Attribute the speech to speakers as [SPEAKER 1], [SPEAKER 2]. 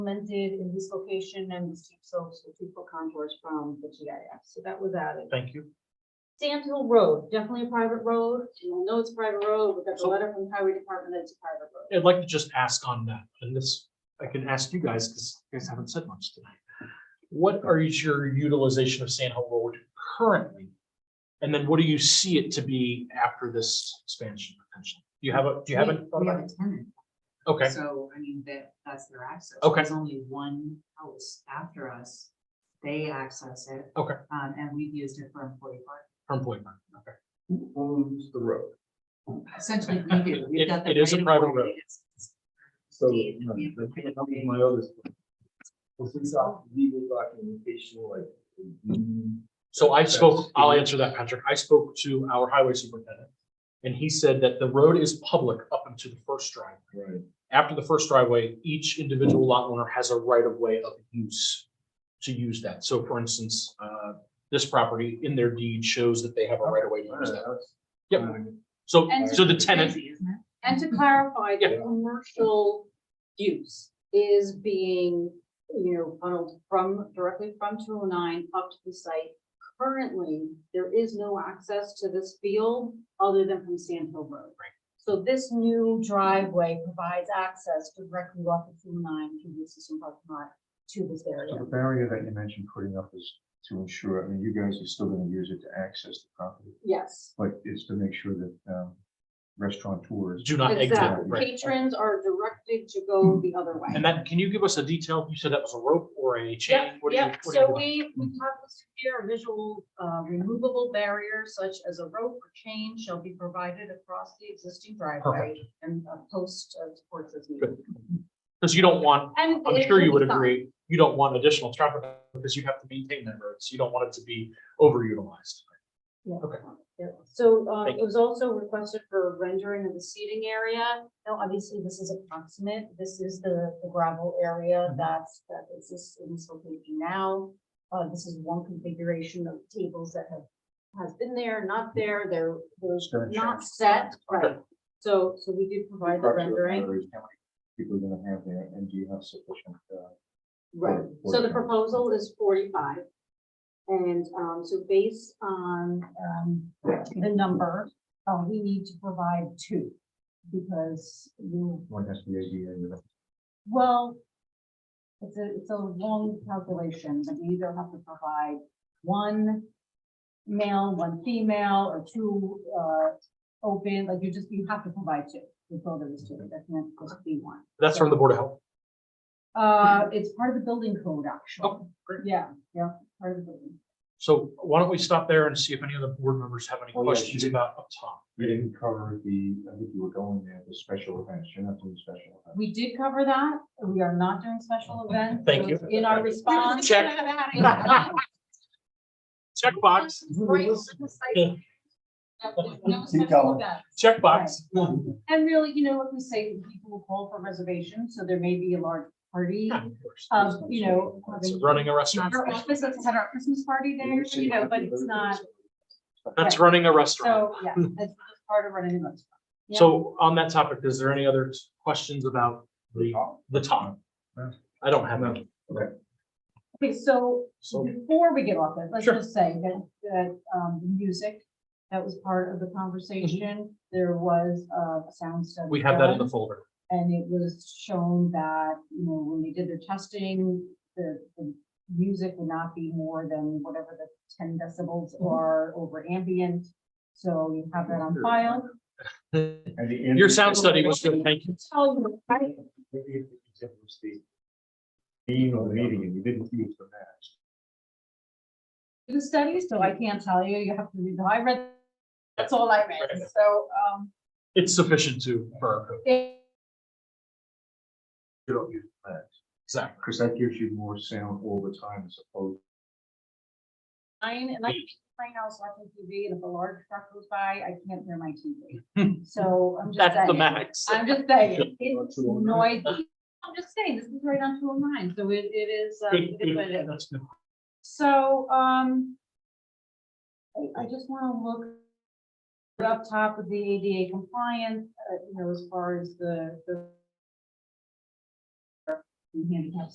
[SPEAKER 1] implemented in this location and the steep slopes with equal contours from the GIS, so that was added.
[SPEAKER 2] Thank you.
[SPEAKER 1] Sand Hill Road, definitely a private road, you all know it's a private road, we got the
[SPEAKER 2] So-
[SPEAKER 1] letter from the highway department that it's a private road.
[SPEAKER 2] I'd like to just ask on that, and this, I can ask you guys, because you guys haven't said much tonight. What are your utilization of Sand Hill Road currently? And then what do you see it to be after this expansion potential? Do you have a, do you have
[SPEAKER 3] We-
[SPEAKER 2] a?
[SPEAKER 3] We have a tenant,
[SPEAKER 2] Okay,
[SPEAKER 3] so I mean, that, that's their access.
[SPEAKER 2] Okay.
[SPEAKER 3] There's only one house after us. They access it.
[SPEAKER 2] Okay.
[SPEAKER 3] Um, and we've used it for employee park.
[SPEAKER 2] for employment, okay.
[SPEAKER 4] Who owns the road?
[SPEAKER 3] Essentially, we do.
[SPEAKER 2] It-
[SPEAKER 3] We've got the
[SPEAKER 2] it is a
[SPEAKER 3] right of
[SPEAKER 2] private
[SPEAKER 3] way.
[SPEAKER 2] road.
[SPEAKER 3] It's- it's
[SPEAKER 4] So,
[SPEAKER 3] deed,
[SPEAKER 4] no,
[SPEAKER 3] we have the
[SPEAKER 4] that's
[SPEAKER 3] right of
[SPEAKER 4] that was
[SPEAKER 3] way.
[SPEAKER 4] my other. question. Was this off legal documentation like? mm,
[SPEAKER 2] So I spoke, I'll answer that, Patrick. I spoke to our highway superintendent. And he said that the road is public up into the first drive.
[SPEAKER 4] Right,
[SPEAKER 2] after the first driveway, each individual lot owner has a right of way of use to use that. So for instance, uh, this property in their deed shows that they
[SPEAKER 5] Oh,
[SPEAKER 2] have a right of way to
[SPEAKER 4] I
[SPEAKER 2] use
[SPEAKER 4] don't
[SPEAKER 2] that.
[SPEAKER 4] know, that's-
[SPEAKER 2] Yep. So,
[SPEAKER 1] And-
[SPEAKER 2] so the tenant,
[SPEAKER 3] Crazy, isn't it?
[SPEAKER 1] And to clarify, the
[SPEAKER 4] Yeah.
[SPEAKER 1] commercial use is being, you know, funneled from, directly from two oh nine up to the site. Currently, there is no access to this field other than from Sand Hill Road.
[SPEAKER 2] Right.
[SPEAKER 1] So this new driveway provides access directly off of two oh nine through the system parking lot to this
[SPEAKER 5] So
[SPEAKER 1] area.
[SPEAKER 5] the barrier that you mentioned putting up is to ensure, I mean, you guys are still gonna use it to access the property,
[SPEAKER 1] Yes.
[SPEAKER 5] but it's to make sure that, um, restaurateurs.
[SPEAKER 2] do not exit,
[SPEAKER 1] Exactly.
[SPEAKER 2] right?
[SPEAKER 1] Patrons are directed to go the other way.
[SPEAKER 2] And that, can you give us a detail? You said that was a rope or a chain?
[SPEAKER 1] Yep,
[SPEAKER 2] What do you-
[SPEAKER 1] yep,
[SPEAKER 2] what do you
[SPEAKER 1] so
[SPEAKER 2] want?
[SPEAKER 1] we, we talked this here, a visual, uh, removable barrier such as a rope or chain shall be provided across the existing driveway. And a post uh, supports as needed.
[SPEAKER 2] Because you don't want,
[SPEAKER 1] And
[SPEAKER 2] I'm
[SPEAKER 1] it
[SPEAKER 2] sure you
[SPEAKER 1] should
[SPEAKER 2] would
[SPEAKER 1] be fine.
[SPEAKER 2] agree, you don't want additional traffic because you have to maintain that road. So you don't want it to be overutilized.
[SPEAKER 1] Yeah.
[SPEAKER 2] Okay.
[SPEAKER 1] Yeah. So, um,
[SPEAKER 2] Thank
[SPEAKER 1] it was also requested for rendering of the seating area. Now, obviously, this is approximate. This is the the gravel area
[SPEAKER 2] Mhm.
[SPEAKER 1] that's, that exists in this location now. Uh, this is one configuration of tables that have, has been there, not there, they're,
[SPEAKER 5] It's
[SPEAKER 1] they're
[SPEAKER 5] gonna
[SPEAKER 1] not
[SPEAKER 5] change.
[SPEAKER 1] set, right? So, so we did provide the
[SPEAKER 5] Structure of
[SPEAKER 1] rendering.
[SPEAKER 5] batteries, how many People are gonna have there, and do you have sufficient, uh,
[SPEAKER 1] Right,
[SPEAKER 5] Or-
[SPEAKER 1] so the
[SPEAKER 5] or-
[SPEAKER 1] proposal is forty-five. And, um, so based on, um, the number, uh, we need to provide two. Because you,
[SPEAKER 5] one has to be ADA, you know,
[SPEAKER 1] well, it's a, it's a long calculation, but you either have to provide one male, one female, or two, uh, open, like you just, you have to provide two. The voter is two, that can't just be one.
[SPEAKER 2] That's from the Board of Health.
[SPEAKER 1] Uh, it's part of the building code, actually.
[SPEAKER 2] Oh, great.
[SPEAKER 1] Yeah, yeah, part of the building.
[SPEAKER 2] So why don't we stop there and see if any of the board members have any
[SPEAKER 5] Oh, yeah, you
[SPEAKER 2] questions
[SPEAKER 5] did.
[SPEAKER 2] about up top?
[SPEAKER 5] You didn't cover the, I think you were going there, the special events, you're not doing special events.
[SPEAKER 1] We did cover that. We are not doing special events.
[SPEAKER 2] Thank you.
[SPEAKER 1] In our response.
[SPEAKER 2] Check. Checkbox,
[SPEAKER 1] Right, precisely. That there's no
[SPEAKER 5] Keep
[SPEAKER 1] special
[SPEAKER 5] going.
[SPEAKER 1] event.
[SPEAKER 2] checkbox.
[SPEAKER 1] And really, you know, like we say, people will call for reservations, so there may be a large party, um, you know.
[SPEAKER 2] It's running a restaurant.
[SPEAKER 1] Our office has had our Christmas party there, you know, but it's not,
[SPEAKER 2] That's running a restaurant.
[SPEAKER 1] so, yeah, that's part of running a restaurant. yeah.
[SPEAKER 2] So on that topic, is there any other questions about the, the top?
[SPEAKER 5] No.
[SPEAKER 2] I don't have any.
[SPEAKER 1] Okay, so
[SPEAKER 2] So-
[SPEAKER 1] before we get off that, let's
[SPEAKER 2] Sure.
[SPEAKER 1] just say that, that, um, the music, that was part of the conversation. There was uh, a sound study.
[SPEAKER 2] We have that in
[SPEAKER 1] done,
[SPEAKER 2] the folder.
[SPEAKER 1] And it was shown that, you know, when they did their testing, the, the music would not be more than whatever the ten decibels
[SPEAKER 2] Mm-hmm.
[SPEAKER 1] are over ambient. So you have that on file.
[SPEAKER 2] Your sound study was good. Thank you.
[SPEAKER 1] Oh, right.
[SPEAKER 5] Being on the meeting, and you didn't use the mask.
[SPEAKER 1] the study, so I can't tell you, you have to read, the I read, that's all I read, so, um,
[SPEAKER 2] It's sufficient to, for our code.
[SPEAKER 1] it-
[SPEAKER 5] You don't use the mask.
[SPEAKER 2] Exactly.
[SPEAKER 5] Because that gives you more sound all the time as opposed.
[SPEAKER 1] mine, and
[SPEAKER 2] Hmm.
[SPEAKER 1] I can right now, so I can TV, and if a large truck goes by, I can't hear my TV. So I'm just
[SPEAKER 2] That's the
[SPEAKER 1] saying,
[SPEAKER 2] max.
[SPEAKER 1] I'm just saying, it's noisy, I'm just saying, this is right on two oh nine, so it, it is, um, it is what it is.
[SPEAKER 2] That's good.
[SPEAKER 1] So, um, I, I just wanna look up top of the ADA compliance, uh, you know, as far as the, the handicap